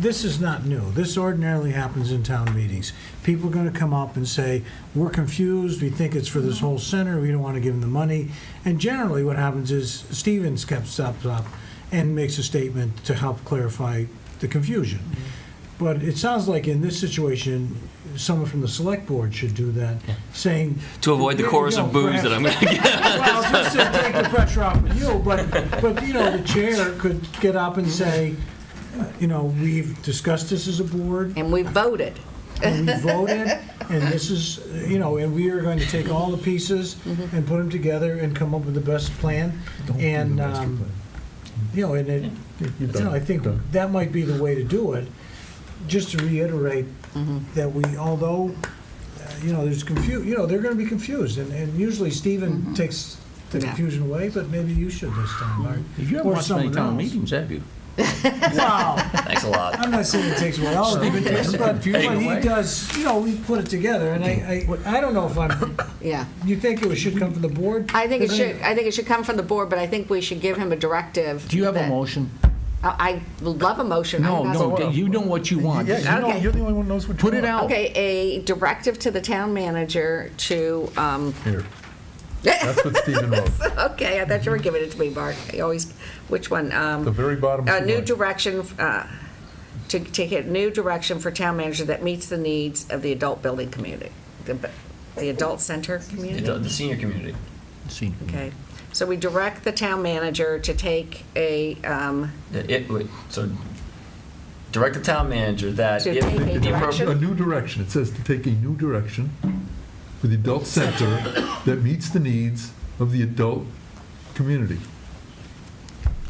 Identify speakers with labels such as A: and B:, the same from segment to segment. A: This is not new. This ordinarily happens in town meetings. People are going to come up and say, we're confused, we think it's for
B: Mm-hmm.
A: this whole center, we don't want to give them the money. And generally, what happens is Steven steps up up and makes a statement to help clarify the confusion.
B: Mm-hmm.
A: But it sounds like in this situation, someone from the select board should do that, saying.
B: To avoid the
A: "Here you
B: chorus of
A: go,
B: boos that I'm going to get.
A: Well, just to take the pressure off of you, but, but, you know, the chair could get up and say, uh, you know, we've discussed this as a board,
C: And we voted.
A: and we voted, and this is, uh, you know, and we are going to take all the pieces and put them together and come up with the best plan, and, um, you know, and it, you know, I think that might be the way to do it, just to reiterate
C: Mm-hmm.
A: that we, although, uh, you know, there's confu, you know, they're gonna be confused, and, and usually Stephen takes the
C: Mm-hmm. Yeah.
A: confusion away, but maybe you should this time, Mark.
D: You haven't
A: Or
D: watched many
A: someone
D: town
A: else.
D: meetings, have you?
A: Wow,
B: Thanks a lot.
A: I'm not saying it takes away all of it, but, but he
D: confusion away.
A: does, you know, we put it together, and I, I, I don't know if I'm,
C: Yeah.
A: you think it should come from the board?
C: I think it should, I think it should come from the board, but I think we should give him a directive.
D: Do you have a
C: that-
D: motion?
C: I I love a motion. I
D: No,
C: have-
D: no, you know what you want.
E: Yeah, you know,
C: Okay.
E: you're the only one who knows what you
D: Put
E: want.
D: it out.
C: Okay, a directive to the town manager to, um,
E: Here. That's what Stephen wrote,
C: okay, I thought you were giving it to me, Mark. I always, which one? Um,
E: the very bottom.
C: a
E: two
C: new
E: lines.
C: direction, uh, to take a new direction for town manager that meets the needs of the adult building community, the the adult center community?
B: The, the senior community.
D: See.
C: Okay, so we direct the town manager to take a, um,
B: It, it would- so direct the town manager that
C: To
B: if
C: take a
B: the
C: direction?
E: A
B: appropriate
E: new direction, it says to take a new direction for the adult center that meets the needs of the adult community.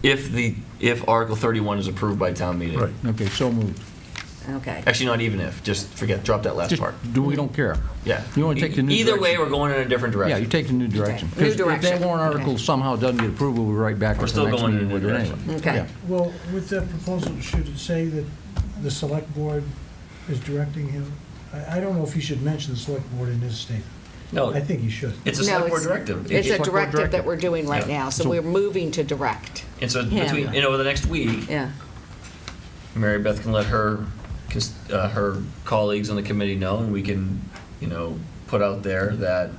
B: if the if Article 31 is approved by town meeting.
E: Right.
D: Okay, so moved.
C: okay,
B: Actually, not even if. Just forget. Drop that last
D: Just
B: part.
D: do, we don't care.
B: Yeah. E-
D: You wanna take the new
B: Either way,
D: direction.
B: we're going in a different
D: Yeah,
B: direction.
D: you take the new direction.
C: Okay, new
D: 'Cause If
C: direction.
D: that warrant article
C: Okay.
D: somehow doesn't get approved, we'll be right back
B: We're
D: at
B: still
D: the next
B: going in
D: meeting
B: the
D: with it
B: direction.
D: anyway.
C: okay.
A: Well, with that proposal, should it say that the select board is directing him? I, I don't know if he should mention the select board in his statement.
B: No,
A: I think he should.
B: it's a
C: No,
B: select board
C: it's-
B: directive.
C: It's
B: It-
C: a
D: Select board
C: directive that
D: directive.
C: we're doing right
B: Yeah.
C: now, so
D: So-
C: we're moving to direct,
B: and so
C: Yeah.
B: between you know over the next week,
C: yeah.
B: Mary Beth can let her cons- uh, her colleagues on the committee know, and we can you know put out there that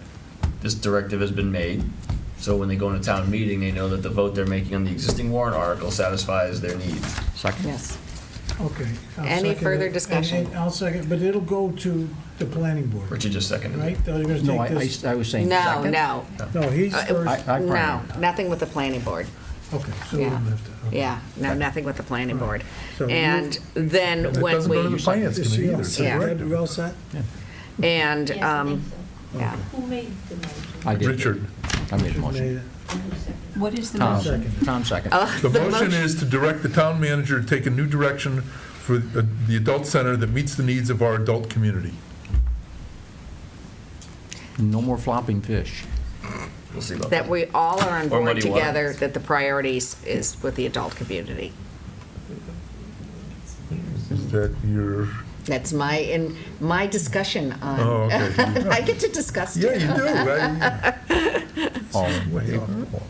B: this directive has been made. So when they go into town meeting, they know that the vote they're making on the existing warrant article satisfies their needs.
D: Second.
C: Yes.
A: Okay. I'll
C: Any
A: second
C: further
A: it. And-
C: discussion?
A: and I'll second, but it'll go to the planning board,
B: Richard just seconded it.
A: right? They're gonna
D: No, I,
A: take
D: I
A: this-
D: I was saying
C: No,
D: second.
C: no,
A: No, he's
C: I-
A: first.
D: I, I
C: no,
D: primed.
C: nothing with the planning board,
A: Okay, so we
C: Yeah.
A: don't have to. okay.
C: yeah, no, nothing with the planning board.
A: So you-
C: And then
E: It
C: when
E: doesn't go to the
C: we,
E: finance
A: Is
E: committee
A: she
E: either.
A: all
E: It's a
C: Yeah.
A: set?
E: directive.
A: We're all set?
C: and,
F: Yes, I think
C: um, yeah,
F: so. Who made the motion?
D: I did.
E: Richard,
D: I made a
A: Made
D: motion.
A: it.
G: What is the
D: Tom,
G: motion?
A: Second.
D: Tom second.
C: Oh.
E: the motion is to direct the town manager to take a new direction for the uh, the adult center that meets the needs of our adult community.
D: No more flopping fish.
C: Oh.
B: We'll see about
C: that we all are on
B: Or
C: board
B: muddy water.
C: together, that the priorities is with the adult community.
E: Is that your,
C: That's my, in, my discussion
E: oh,
C: on,
E: okay.
C: I get to discuss
E: Yeah,
C: it.
E: you do, right?
D: All in.
E: Way off the wall.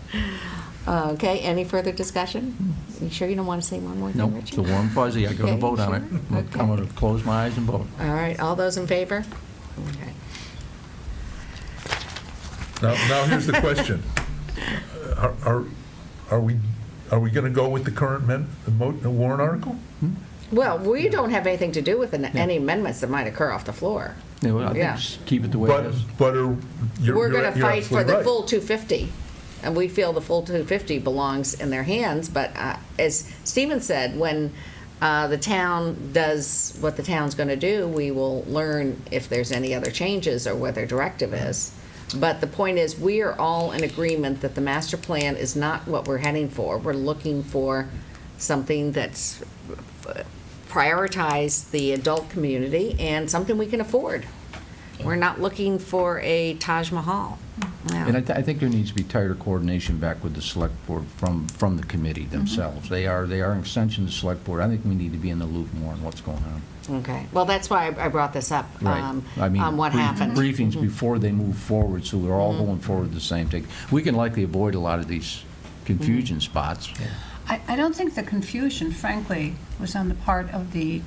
C: Uh, Okay, any further discussion? You sure you don't want to say one more
D: Nope,
C: thing,
D: it's
C: Richard?
D: a warm fuzzy. I gotta
C: Okay,
D: vote on it.
C: sure?
D: I'm
C: Okay.
D: gonna close my eyes and vote.
C: All right, all those in favor? Okay.
E: Now, now here's the question. Uh, Are, are, are we, are we going to go with the current men, the mo- the warrant article?
C: Well, we don't have anything to do with an- any amendments that might occur off the floor.
D: Yeah, well, I think
C: Yeah.
D: just keep it the way it
E: But,
D: is.
E: but are, you're,
C: We're
E: you're
C: going to
E: you're
C: fight for
E: absolutely
C: the
E: right.
C: full 250, and we feel the full 250 belongs in their hands, but uh, as Stephen said, when uh, the town does what the town's going to do, we will learn if there's any other changes or what their directive is. But the point is, we are all in agreement that the master plan is not what we're heading for. We're looking for something that's prioritize the adult community and something we can afford. We're not looking for a Taj Mahal. No.
D: And I, th- I think there needs to be tighter coordination back with the select board from, from the committee themselves. They are, they are an extension of the select board. I think we need to be in the loop more on what's going on.
C: Okay, well, that's why I I brought this up, um,
D: I mean,
C: on what
D: brief-
C: happened. Mm-hmm.
D: Briefings before they move forward, so we're all going forward the same thing. We can likely avoid a lot of these confusion spots.
F: I, I don't think the confusion, frankly, was on the part of the